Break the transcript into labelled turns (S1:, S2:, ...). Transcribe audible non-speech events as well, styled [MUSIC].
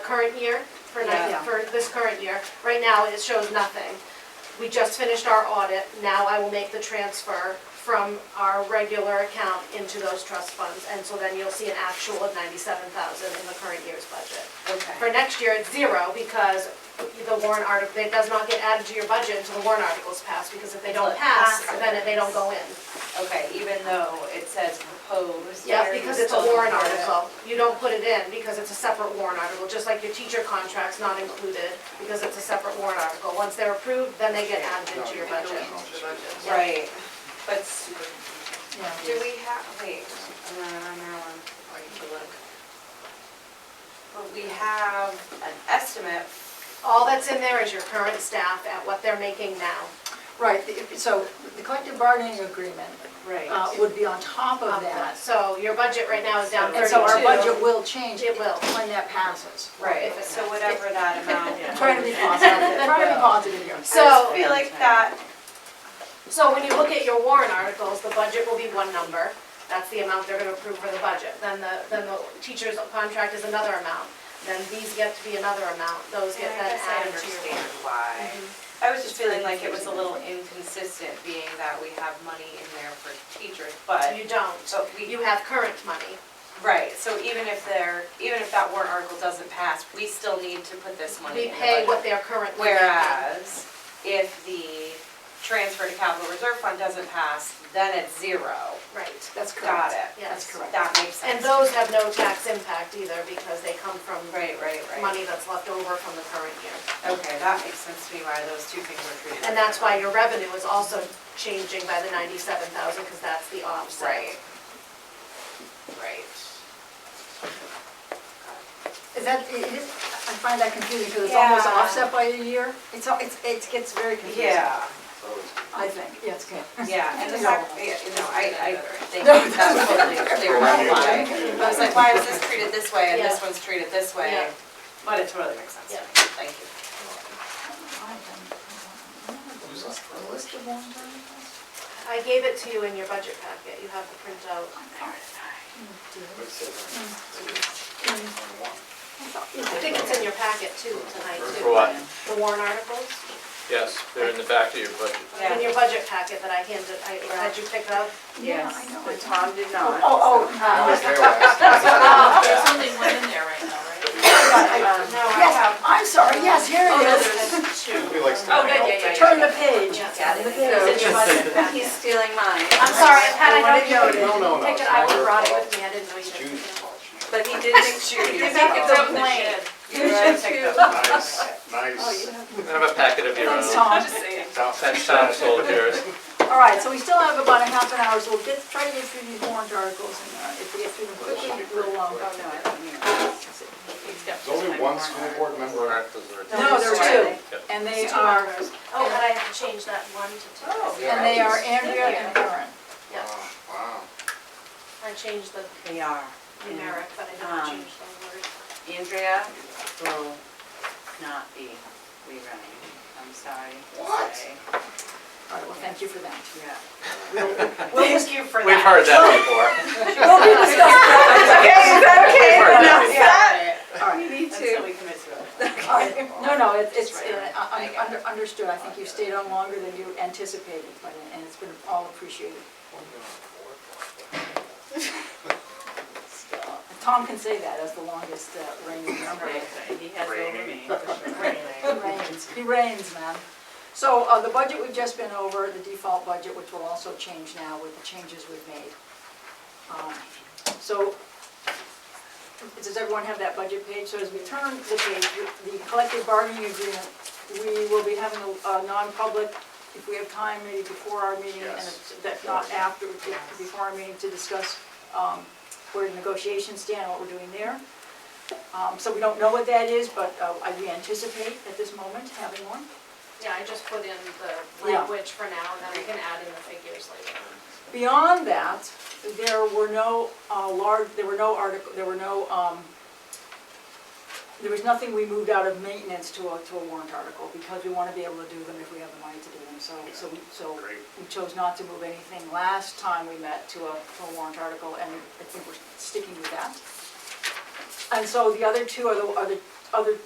S1: current year, for, ni-
S2: Yeah.
S1: for this current year. Right now, it shows nothing. We just finished our audit, now I will make the transfer from our regular account into those trust funds. And so then you'll see an actual of ninety-seven thousand in the current year's budget. For
S2: Okay.
S1: next year, it's zero because the warrant article, it does not get added to your budget until the warrant article's passed, because if they don't pass, then they don't go in.
S2: Okay, even though it says proposed.
S1: Yeah,
S2: or
S1: because
S2: you
S1: it's a
S2: still
S1: warrant
S2: don't put it.
S1: article. You don't put it in because it's a separate warrant article, just like your teacher contract's not included because it's a separate warrant article. Once they're approved, then they get added into your budget. Yeah.
S2: Right, but s-
S3: Yeah.
S2: do we have, wait, uh, I'm not on that one, I can look. But we have an estimate,
S1: All that's in there is your current staff at what they're making now.
S3: Right, the- so the collective bargaining agreement uh,
S2: right,
S3: would be on top of that.
S1: Um, So your budget right now is down
S3: Oh, And so our budget
S1: thirty-two.
S3: will change
S1: It will.
S3: when that passes.
S2: right, so whatever
S1: [LAUGHS]
S2: that amount.
S3: I'm Trying to be positive, trying to be positive here.
S1: So-
S2: I just feel like that,
S1: So when you look at your warrant articles, the budget will be one number. That's the amount they're gonna approve for the budget. Then the, then the teacher's contract is another amount. Then these get to be another amount. Those
S2: Yeah,
S1: get
S2: I
S1: then
S2: guess I
S1: added to Mm-hmm. your.
S2: understand why. I was just feeling like it was a little inconsistent, being that we have money in there for teachers, but,
S1: You don't.
S2: but we,
S1: You have current money.
S2: right, so even if there, even if that warrant article doesn't pass, we still need to put this money
S1: We
S2: in the
S1: pay what
S2: budget.
S1: they're currently making.
S2: Whereas, if the transfer to capital reserve fund doesn't pass, then it's zero.
S1: Right,
S3: That's
S2: Got
S3: correct.
S2: it?
S1: Yes.
S3: That's correct.
S2: That makes sense.
S1: and those have no tax impact either because they come from
S2: Right, right, right.
S1: money that's left over from the current year.
S2: Okay, that makes sense to me why those two things were treated.
S1: And that's why your revenue is also changing by the ninety-seven thousand because that's the offset.
S2: Right. Right.
S3: Is that, it is, I find that confusing because it's
S2: Yeah.
S3: almost offset by a year. It's, al- it's, it gets very confusing.
S2: Yeah.
S3: I think, yeah, it's [LAUGHS] good.
S2: Yeah, and the
S3: No.
S2: fact, yeah, no, I, I think
S3: [LAUGHS]
S2: that's totally clear about why. I was like, why was this treated this way and this
S1: Yeah.
S2: one's treated this
S1: Yeah.
S2: way? But it totally makes sense. to me. Thank you.
S3: The list of warrant articles?
S1: I gave it to you in your budget packet, you have the printout. I think it's in your packet too tonight too.
S4: For what?
S1: The warrant articles,
S4: Yes, they're in the back of your budget.
S2: Yeah.
S1: in your budget packet that I handed, I had you pick up.
S3: Yes,
S2: but Tom did
S3: Oh, oh, uh,
S5: [LAUGHS] There's only one in there right now, right? Um,
S2: Um,
S1: No, I
S3: yes, I'm sorry, yes, here
S5: Oh, no,
S3: it is.
S5: there's two.
S4: Oh,
S5: Oh, good, yeah, yeah,
S3: Turn
S5: yeah.
S3: the page.
S1: Yes.
S2: Got it.
S3: The page.
S1: It's in your budget packet.
S2: He's stealing mine.
S1: I'm sorry, had I known
S3: No,
S1: you
S6: no,
S1: would
S6: no,
S1: pick
S6: it's
S1: it, I
S6: not
S1: would have brought
S6: her
S1: it
S6: fault.
S1: with me, I didn't know you
S6: It's
S1: did.
S6: Judy's fault.
S2: But he did make sure you.
S5: He's making his own plan.
S3: [LAUGHS]
S2: You should too.
S6: Nice,
S3: Oh,
S6: nice.
S4: I have a packet of your
S3: Thanks,
S4: own.
S3: Tom.
S5: I'm just saying.
S4: That's Tom's sold yours.
S3: All right, so we still have about a half an hour, so we'll get, try to get through these warrant articles, and uh, if we get through them quickly, we'll,
S2: Oh,
S3: um,
S2: no, I don't mean.
S5: He's got
S6: There's only
S5: time
S6: one
S5: for
S6: school
S5: it.
S6: board
S3: no,
S6: member.
S2: there's
S3: there's
S2: two.
S3: two, and they
S1: It's two
S3: are,
S1: hours. Oh, but I have to change that one to two.
S2: Oh.
S3: and they are Andrea and Karen.
S1: Yeah,
S6: Oh, Wow.
S1: I changed the
S2: They are.
S1: numeric, but I
S2: Um,
S1: didn't change the word.
S2: Andrea will not be rerunning. I'm sorry to
S3: What?
S2: say.
S3: All right, well, thank you for that.
S2: Yeah.
S3: Thank you for
S4: We've heard
S3: Oh.
S4: that before.
S3: [LAUGHS]
S4: We've heard that before.
S3: All right,
S2: Me too. Until we commit to it.
S3: all right, no, no, it- it's, uh, I- I under- understood, I think you stayed on longer than you anticipated, but- and it's been all appreciated. Tom can say that as the longest uh, reigning member.
S5: Right, He has over me,
S3: [LAUGHS]
S5: for
S3: He
S5: sure.
S3: reigns, he reigns, man. So uh, the budget we've just been over, the default budget, which will also change now with the changes we've made. Um, So, does everyone have that budget page? So as we turn the page, the collective bargaining agreement, we will be having a a non-public, if we have time, maybe before our meeting, and
S6: Yes.
S3: if that- not after, before our meeting, to discuss um, where the negotiations stand, what we're doing there. Um, So we don't know what that is, but uh, I- we anticipate at this moment having one.
S1: Yeah, I just put in the
S3: Yeah.
S1: language for now, and then we can add in the figures later on.
S3: Beyond that, there were no uh, large, there were no article, there were no, um, there was nothing we moved out of maintenance to a, to a warrant article because we want to be able to do them if we have the money to do them. So, so, we- so
S6: Great.
S3: we chose not to move anything last time we met to a, to a warrant article and I think we're sticking with that. And so the other two are the, are the other